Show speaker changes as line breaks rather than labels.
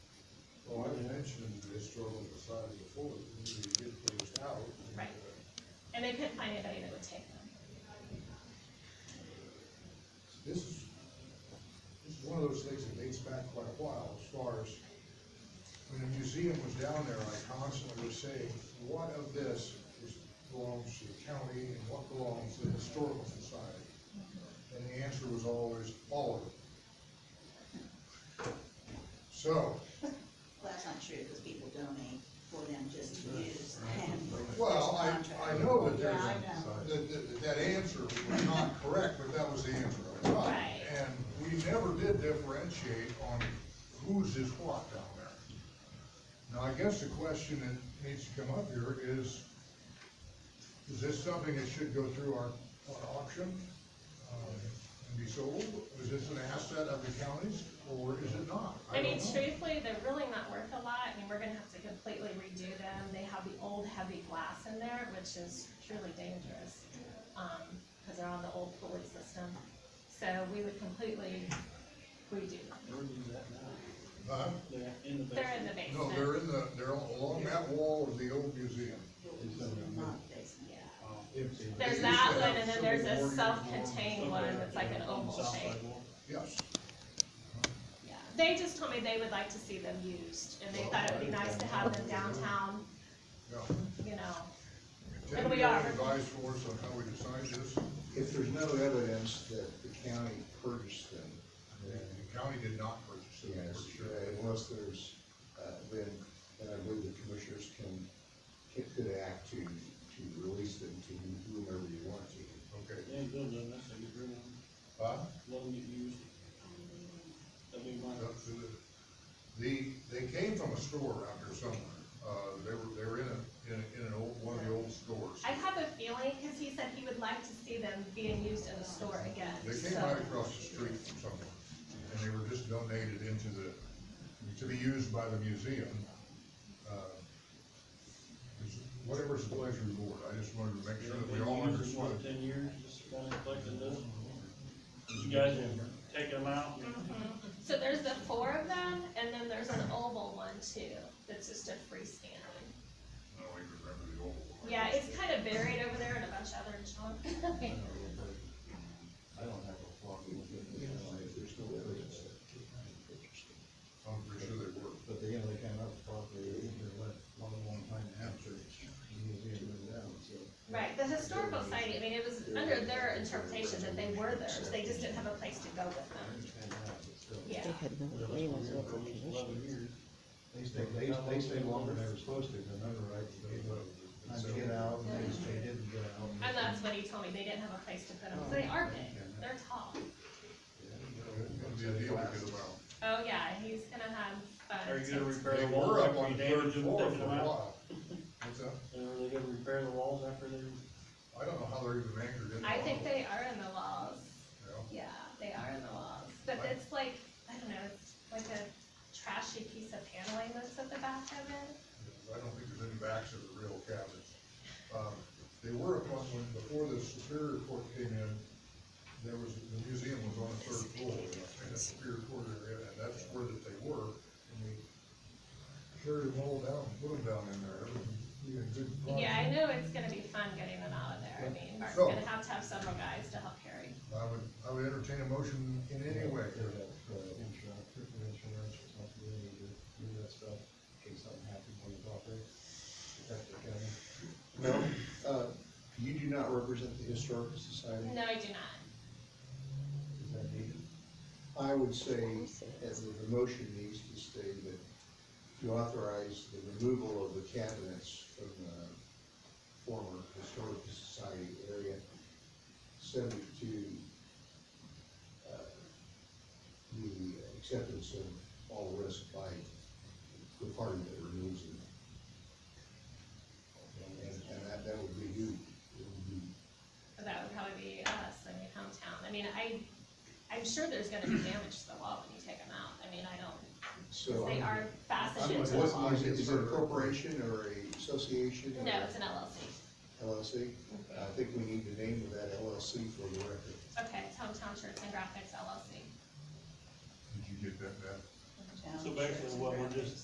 Oh, so decided before, we need to get things out.
Right. And they couldn't find anybody that would take them.
This is, this is one of those things that dates back quite a while, as far as, when the museum was down there, I constantly was saying, what of this is, belongs to the county and what belongs to the historical society? And the answer was always, all of it. So,
Well, that's not true, because people donate for them just to use and.
well, I, I know that
Yeah,
there's,
I
a-
know.
that, that, that answer was not correct, but that was the answer I got.
Right.
And we never did differentiate on whose is what down there. Now, I guess the question that needs to come up here is, is this something that should go through our, our auction? um, And be sold, is this an asset of the county's, or is it not?
I mean,
don't know.
truthfully, they're really not worth a lot, I mean, we're gonna have to completely redo them, they have the old heavy glass in there, which is truly dangerous, um, cause they're on the old pulley system, so we would completely redo them.
Where do you want now?
Huh?
They're in the
They're in the
basement.
basement.
Uh-huh. No, they're in the, they're along that wall of the old museum.
Not basement.
Yeah.
Um,
There's
They used
that
to
one,
have
and then
Civil
there's
War
a
uniforms.
self-contained one
somewhere
that's like an
on the
oval
south
shape.
side wall.
Yes.
Yeah, they just told me they would like to see them used, and they thought it'd be nice to have them downtown,
Yeah.
you know,
Tim,
we
you have
are.
Advice for us on how we decide this,
If there's no evidence that the county purchased them,
the
then
county did not purchase it,
yes,
for sure.
uh, unless there's, uh, then, then I believe the commissioners can, can, could act to, to release them to whomever you want to.
Okay,
They ain't building them, so you bring them,
huh?
let them get used. That'd be my,
Up to the, the, they came from a store out there somewhere, uh, they were, they were in a, in a, in an old, one of the old stores.
I have a feeling, because he said he would like to see them being used in the store again,
They
so.
came right across the street from somewhere, and they were just donated into the, to be used by the museum. Uh, it's- Whatever's the pleasure of the board, I just wanted to make sure that we
They've
all
been used for,
understood.
what, Ten years, just kind of collecting those. You guys have taken them out,
So there's the four of them, and then there's an oval one too, that's just a
I
freestanding.
don't even remember the old one.
Yeah, it's kind of buried over there in a bunch of other junk.
I don't have a problem with it,
If there's no evidence that the county purchased them.
I'm pretty sure they were.
but they, you know, they came out properly, they're left a long, long time after the museum moved out, so.
Right, the historical society, I mean, it was under their interpretation that they were theirs, they just didn't have a place to go with
I
them,
understand that, but still.
yeah.
They had no
They're left
agreement
here
with
for
the
at least
commission.
eleven years.
They stayed, they, they stayed longer than they were supposed to, remember, right? They were Trying to get out, and they, just- they didn't get out.
And that's what he told me, they didn't have a place to put them, they are big, they're tall.
It'd be a deal to get them out.
Oh, yeah, he's gonna have fun.
Are you gonna
too.
repair
They
the walls
were up
after
on
you
the third
damaged them,
floor
taking
for a
them out?
while. What's that?
And are they gonna repair the walls after they?
I don't know how they're even anchored in.
I
the
think
wall.
they are in the walls,
Yeah.
yeah, they are in the walls, but
Right.
it's like, I don't know, it's like a trashy piece of paneling that's at the back of it.
I don't think there's any backs of the real cabinets. Um, They were up on, when, before the Superior Court came in, there was, the museum was on the third floor, in the Superior Court area, and that's where that they were. And we carried them all down, put them down in there, we had good. fun.
Yeah, I know it's gonna be fun getting them out of there, I mean, Mark's
So-
gonna have to have several guys to help carry.
I would, I would entertain a motion in any way.
They have, uh, insurance, critical insurance responsibility to do that stuff, in case something happens on the property, protect the county.
No, uh, you do not represent the historical society?
No, I do not.
Is that needed?
I would say, as the, the motion needs to state that to authorize the removal of the cabinets from the former historical society area, subject to, uh, the acceptance of all risk by the party that removes them. And, and that, that would be you, it would be
That would probably be us, I mean, hometown, I mean, I, I'm sure there's gonna be damage to the wall when you take them out, I mean, I don't,
So.
they
I'm-
are fastened
I'm-
into the
what-
wall.
Is it- is it a corporation or a association? or
No, it's an LLC,
LLC? I think we need the name of that LLC for the record.
okay, it's hometown shirts and graphics LLC.
Did you get that, Matt?
So basically, what we're just